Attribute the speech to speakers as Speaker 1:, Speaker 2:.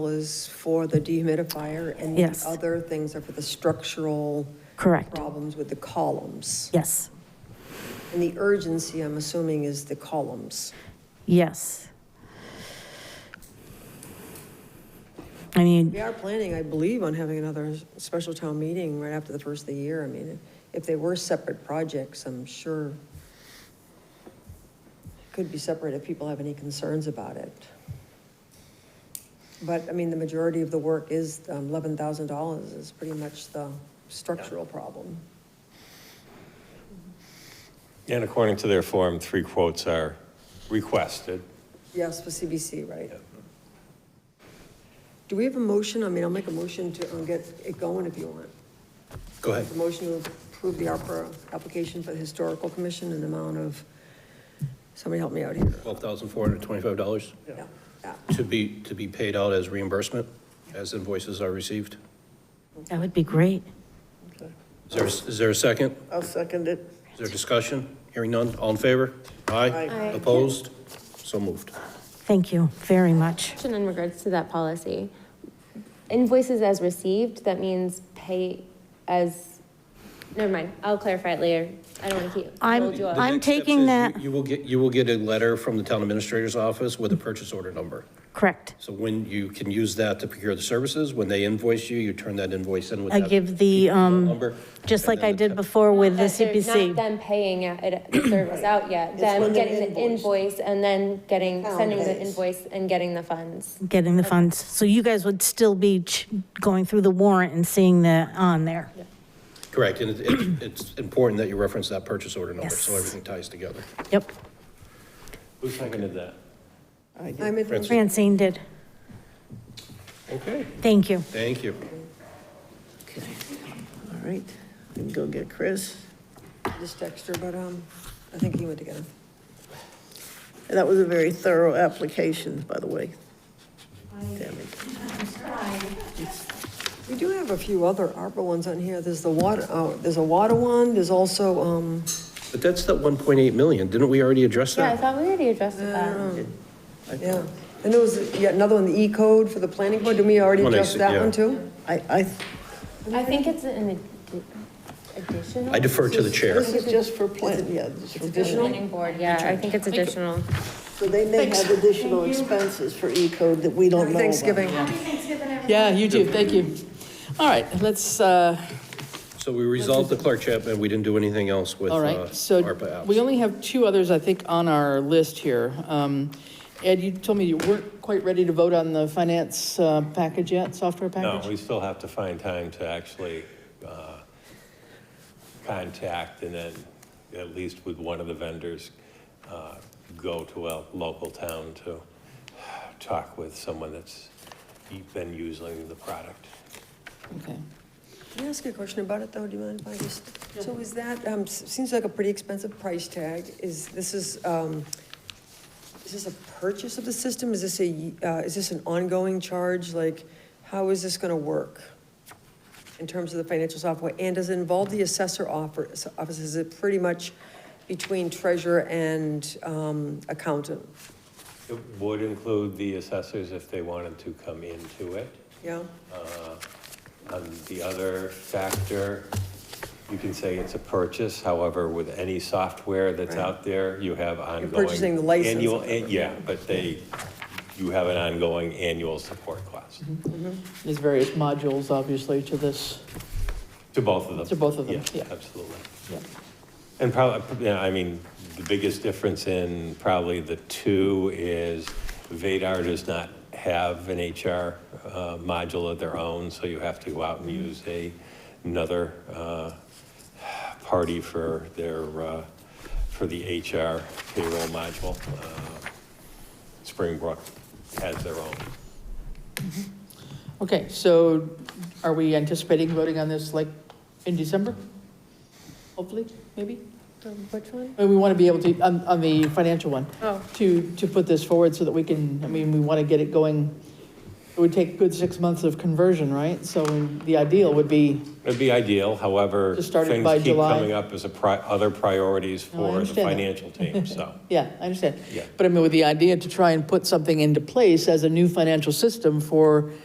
Speaker 1: is for the dehumidifier, and the
Speaker 2: Yes.
Speaker 1: other things are for the structural
Speaker 2: Correct.
Speaker 1: problems with the columns.
Speaker 2: Yes,
Speaker 1: And the urgency, I'm assuming, is the columns.
Speaker 2: yes. I mean,
Speaker 1: We are planning, I believe, on having another special town meeting right after the first of the year. I mean, if they were separate projects, I'm sure it could be separate if people have any concerns about it. But, I mean, the majority of the work is, um, $11,000 is pretty much the structural problem.
Speaker 3: And according to their form, three quotes are requested.
Speaker 1: Yes, for CBC, right? Do we have a motion? I mean, I'll make a motion to um, get it going if you want.
Speaker 3: Go ahead.
Speaker 1: A motion to approve the ARPA application for the Historical Commission in the amount of, somebody help me out here.
Speaker 4: $12,425
Speaker 1: Yeah, yeah.
Speaker 4: to be, to be paid out as reimbursement as invoices are received.
Speaker 2: that would be great.
Speaker 4: Is there, is there a second?
Speaker 5: I'll second it.
Speaker 4: Is there discussion? Hearing none, all in favor? Aye. Opposed? So moved.
Speaker 2: Thank you very much.
Speaker 6: Question in regards to that policy. Invoices as received, that means pay as, never mind, I'll clarify it later. I don't want to keep,
Speaker 2: I'm-
Speaker 6: hold you up.
Speaker 4: The
Speaker 2: I'm
Speaker 4: next step
Speaker 2: taking
Speaker 4: is you-
Speaker 2: that-
Speaker 4: You will get, you will get a letter from the town administrator's office with a purchase order number.
Speaker 2: Correct.
Speaker 4: So when you can use that to procure the services, when they invoice you, you turn that invoice in with
Speaker 2: I
Speaker 4: that
Speaker 2: give the, um,
Speaker 4: number.
Speaker 2: just
Speaker 4: and
Speaker 2: like
Speaker 4: then
Speaker 2: I
Speaker 4: the
Speaker 2: did
Speaker 4: ta-
Speaker 2: before with the
Speaker 6: That they're Not
Speaker 2: CPC.
Speaker 6: them paying it- it- the service out yet, them
Speaker 1: when they're
Speaker 6: getting the
Speaker 1: invoiced.
Speaker 6: invoice and then getting,
Speaker 1: Town
Speaker 6: sending the
Speaker 1: pays.
Speaker 6: invoice and getting the funds.
Speaker 2: Getting the funds. So you guys would still be ch- going through the warrant and seeing that on there.
Speaker 4: Correct, and it- it- it's important that you reference that purchase order number, so
Speaker 2: Yes.
Speaker 4: everything ties together.
Speaker 2: Yep.
Speaker 3: Who seconded that?
Speaker 1: I'm in-
Speaker 2: Francine did.
Speaker 4: Okay.
Speaker 2: Thank you.
Speaker 4: Thank you.
Speaker 5: Okay, all right. Then go get Chris.
Speaker 1: just extra, but um, I think he went to get him.
Speaker 5: And that was a very thorough application, by the way. Tammy.
Speaker 1: We do have a few other ARPA ones on here. There's the water, oh, there's a water one, there's also, um,
Speaker 4: But that's that 1.8 million, didn't we already address
Speaker 6: Yeah, I
Speaker 4: that?
Speaker 6: thought we already addressed that.
Speaker 1: yeah. And there was yet another one, the E code for the planning board. Did we already
Speaker 4: One I
Speaker 1: adjust
Speaker 4: see,
Speaker 1: that
Speaker 4: yeah.
Speaker 1: one too?
Speaker 5: I, I,
Speaker 6: I think it's an addi- additional.
Speaker 4: I defer to the chair.
Speaker 5: this is just for plan, yeah, this is for additional.
Speaker 6: Planning board, yeah, I think it's additional.
Speaker 5: So they may have additional expenses for E-code that we don't know about.
Speaker 1: Thanksgiving.
Speaker 7: Yeah, you do, thank you. All right, let's, uh,
Speaker 4: So we resolved the Clark Chapman, we didn't do anything else with uh,
Speaker 7: all right, so
Speaker 4: ARPA apps.
Speaker 7: we only have two others, I think, on our list here. Um, Ed, you told me you weren't quite ready to vote on the finance uh, package yet, software
Speaker 3: No,
Speaker 7: package?
Speaker 3: we still have to find time to actually uh, contact and then, at least with one of the vendors, uh, go to a local town to talk with someone that's been using the product.
Speaker 7: Okay.
Speaker 1: Can I ask you a question about it, though? Do you mind if I just? So is that, um, s- seems like a pretty expensive price tag. Is, this is, um, is this a purchase of the system? Is this a, y- uh, is this an ongoing charge? Like, how is this gonna work in terms of the financial software? And does it involve the assessor office? office? Is it pretty much between treasurer and, um, accountant?
Speaker 3: It would include the assessors if they wanted to come into it.
Speaker 1: Yeah?
Speaker 3: On the other factor, you can say it's a purchase, however, with any software that's out there, you have ongoing.
Speaker 1: purchasing the license.
Speaker 3: annual- eh, Yeah, but they, you have an ongoing annual support cost
Speaker 7: There's various modules, obviously, to this.
Speaker 3: to both of them.
Speaker 7: To both of them, yeah.
Speaker 3: Absolutely.
Speaker 7: Yeah.
Speaker 3: And probably, I mean, the biggest difference in probably the two is Vadar does not have an HR uh, module of their own, so you have to go out and
Speaker 7: Mm-hmm.
Speaker 3: use a, another uh, party for their, uh, for the HR payroll module. Uh, Springbrook has their own.
Speaker 7: Okay, so are we anticipating voting on this, like, in December? Hopefully, maybe?
Speaker 6: Which one?
Speaker 7: And we want to be able to, on, on the financial one.
Speaker 6: Oh.
Speaker 7: To, to put this forward so that we can, I mean, we want to get it going It would take good six months of conversion, right? So the ideal would be,
Speaker 3: It'd be ideal, however,
Speaker 7: Just started by
Speaker 3: things keep
Speaker 7: July.
Speaker 3: coming up as a pri, other priorities
Speaker 7: No, I
Speaker 3: for the
Speaker 7: understand that.
Speaker 3: financial team, so.
Speaker 7: yeah, I understand.
Speaker 3: Yeah.
Speaker 7: But I mean, with the idea to try and put something into place as a new financial system for